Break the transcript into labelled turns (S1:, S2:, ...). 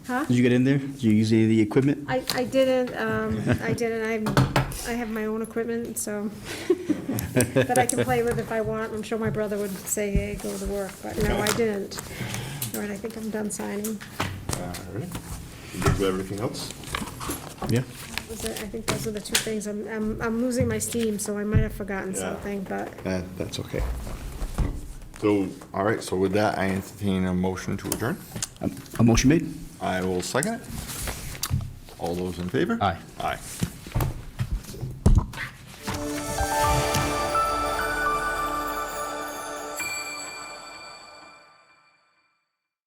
S1: Huh?
S2: Did you get in there? Did you use any of the equipment?
S1: I, I didn't, um, I didn't, I, I have my own equipment, so, that I can play with if I want, I'm sure my brother would say, hey, go to work, but no, I didn't. All right, I think I'm done signing,
S3: All right. You good with everything else?
S4: Yeah.
S1: That was it. I think those are the two things, I'm, I'm, I'm losing my steam, so I might have forgotten
S3: Yeah.
S1: something, but
S4: That, that's okay.
S3: So, all right, so with that, I entertain a motion to adjourn.
S2: A- A motion made?
S3: I will second it. All those in favor?
S4: Aye.
S3: Aye.